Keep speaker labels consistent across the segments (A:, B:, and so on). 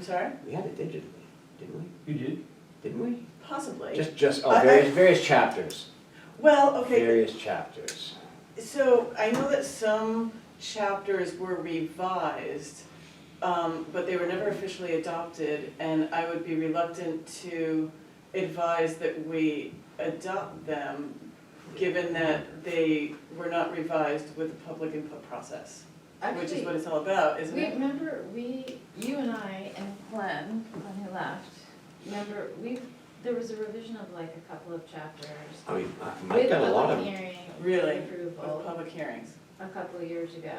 A: sorry?
B: We had it digitally, didn't we?
C: You did?
B: Didn't we?
A: Possibly.
B: Just, just,
A: I-
B: oh,
A: I-
B: various, various chapters,
A: Well, okay,
B: various chapters.
A: so I know that some chapters were revised, um, but they were never officially adopted, and I would be reluctant to advise that we adopt them, given that they were not revised with the public input process, which is what
D: Actually,
A: it's all about, isn't
D: we
A: it?
D: remember, we, you and I and Glenn, when he left, remember, we, there was a revision of like a couple of chapters.
B: I mean, I- I've got a lot of,
D: With public hearing.
A: Really? With
D: Approval,
A: public hearings.
D: a couple of years ago.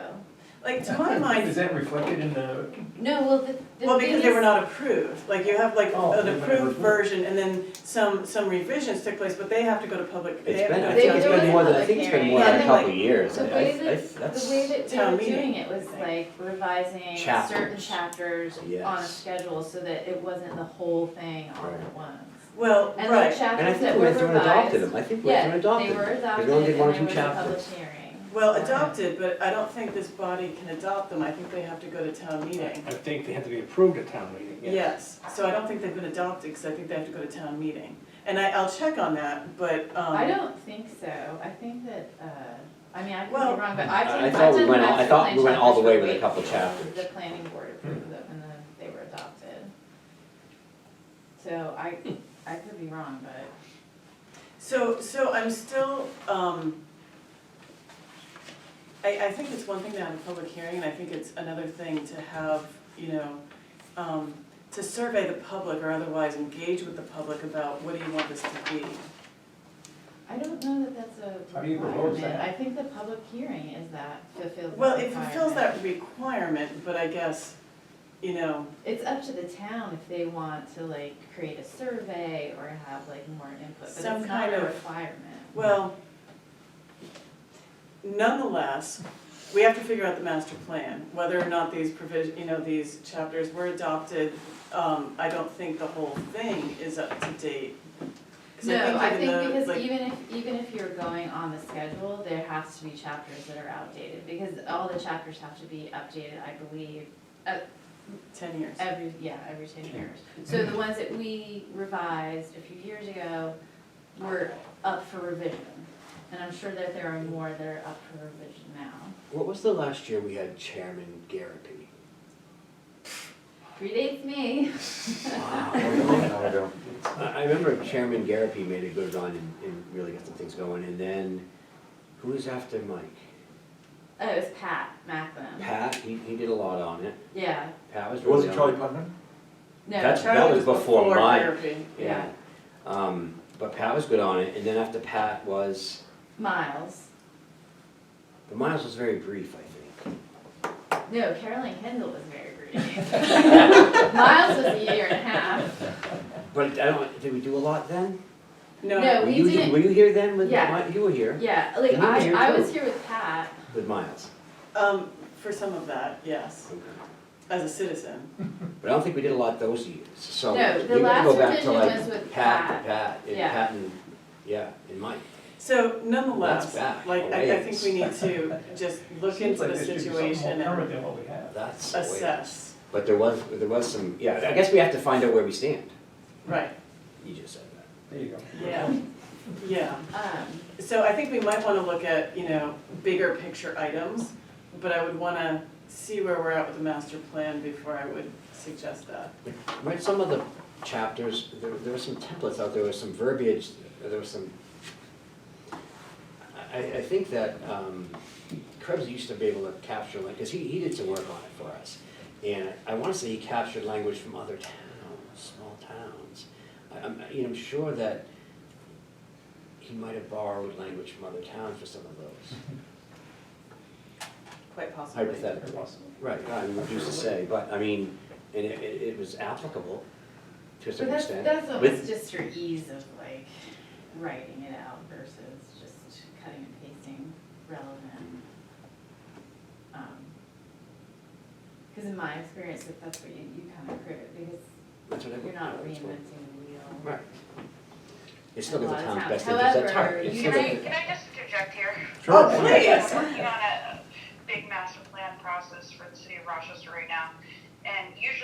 A: Like, to my mind,
C: Is that reflected in the,
D: No, well, the, the thing
A: Well, because they were
D: is-
A: not approved, like you have like
C: Oh,
A: an
C: they weren't
A: approved
C: approved.
A: version and then some, some revisions took place, but they have to go to public, they
B: it's
A: have
B: been,
A: to
B: I
A: go
B: think
D: They-
A: to
B: it's
D: there was
B: been
D: a
B: more than, I
D: public
B: think it's been
D: hearing.
B: more
A: Yeah, I
B: than a
A: think, like,
B: couple of years.
D: The
B: I- I-
D: way
B: I-
D: that, the
B: that's-
D: way that they
A: Town
D: were
A: meeting.
D: doing it was like revising certain
B: Chapters.
D: chapters on a
B: Yes.
D: schedule so that it wasn't the whole thing all at
B: Right.
D: once.
A: Well,
D: And the
A: right,
B: And I
D: chapters
B: think
D: that
B: we
D: were
B: went through and adopted
D: revised,
B: them, I think we went
D: yeah,
B: through and
D: they
B: adopted them.
D: were adopted
B: They only did
D: and
B: one
D: there
B: or
D: was
B: two
D: a public
B: chapters.
D: hearing.
A: well
D: on it.
A: adopted, but I don't think this body can adopt them, I think they have to go to town meeting.
E: I think they have to be approved at town meeting, yes.
A: Yes, so I don't think they've been adopted, because I think they have to go to town meeting. And I, I'll check on that, but, um.
D: I don't think so, I think that, uh, I mean, I could be
A: Well-
D: wrong, but I've
B: I- I
D: done, I've
B: thought we
D: done
B: went all- I
D: master
B: thought
D: plan
B: we went all the
D: chapters
B: way
D: where
B: with a couple
D: we-
B: chapters.
D: The planning board approved them and then they were adopted. So I, I could be wrong, but.
A: So, so I'm still, um, I, I think it's one thing to have a public hearing, and I think it's another thing to have, you know, um, to survey the public or otherwise engage with the public about what do you want this to be?
D: I don't know that that's a
C: How do you propose
D: requirement,
C: that?
D: I think the public hearing is that fulfills the
A: Well, it fulfills
D: requirement.
A: that requirement, but I guess, you know,
D: It's up to the town if they want to like create a survey or have like more input, but it's
A: Some
D: not
A: kind
D: a
A: of-
D: requirement.
A: well, nonetheless, we have to figure out the master plan, whether or not these provision, you know, these chapters were adopted. Um, I don't think the whole thing is up to date. 'Cause
D: No, I
A: even
D: think
A: though,
D: because
A: like-
D: even if, even if you're going on the schedule, there has to be chapters that are outdated, because all the chapters have to be updated, I believe,
A: Ten years.
D: Every, yeah, every ten years. So the ones that we revised a few years ago were up for revision. And I'm sure that there are more that are up for revision now.
B: What was the last year we had Chairman Garapi?
D: Predates me.
B: Wow, that was a long time ago. I, I remember Chairman Garapi made a good run and, and really got some things going, and then, who was after Mike?
D: Oh, it was Pat Macklin.
B: Pat, he, he did a lot on it,
D: Yeah,
B: Pat was really
C: was it
B: on
C: Charlie Putnam?
D: no,
B: That's- that
A: Charlie
B: was before mine.
A: therapy.
B: Yeah. Um, but Pat was good on it, and then after Pat was,
D: Miles.
B: but Miles was very brief, I think.
D: No, Carolyn Kendall was very brief. Miles was a year and a half.
B: But I don't, did we do a lot then?
A: No,
D: No.
B: Were
D: we
B: you,
D: didn't-
B: Were you here then with,
D: Yeah.
B: Mi- you were here
D: Yeah, like
B: You were
D: I,
B: here
D: I
B: too.
D: was here with Pat.
B: with Miles.
A: um, for some of that, yes,
B: Okay.
A: as a citizen.
B: But I don't think we did a lot those years, so.
D: No, the
B: you gotta go
D: last
B: back to,
D: revision
B: like,
D: was with Pat.
B: Pat, Pat, and
D: Yeah.
B: Pat and, yeah, and Mike.
A: So nonetheless,
B: That's back,
A: like, I, I think we need
B: ways.
A: to just look
C: Seems
A: into
C: like
A: the
C: this should be something more
A: situation and
C: Current than what we have.
B: That's the way.
A: assess,
B: But there was, there was some, yeah, I guess we have to find out where we stand.
A: right,
B: You just said that.
C: There you go.
A: yeah, yeah.
D: Um,
A: So I think we might wanna look at, you know, bigger picture items, but I would wanna see where we're at with the master plan before I would suggest that.
B: Right, some of the chapters, there, there were some templates out there, there was some verbiage, there was some, I, I think that, um, Krebs used to be able to capture, like, cause he, he did some work on it for us. And I wanna say he captured language from other towns, small towns. I, I'm, you know, I'm sure that he might have borrowed language from other towns for some of those.
A: Quite possibly.
B: Hypothetical.
C: Very possible.
B: Right, I mean, who's to say, but, I mean, and it, it it was applicable to a
D: But
B: certain
D: that's,
B: extent.
D: that's almost
B: With-
D: just for ease of like writing it out versus just cutting and pasting relevant. Because in my experience, like that's what you, you kind of create, because
B: That's what I
D: you're not
B: that's what-
D: reinventing the wheel.
B: Right. It's still in
D: A
B: the
D: lot of
B: town's
D: times.
B: best interest at
D: However,
B: heart. It's
D: you
B: still
F: Can I,
B: in the-
F: can I just interject here?
A: Oh,
B: Sure.
A: please.
F: We're working on a big master plan process for the city of Rochester right now. And usually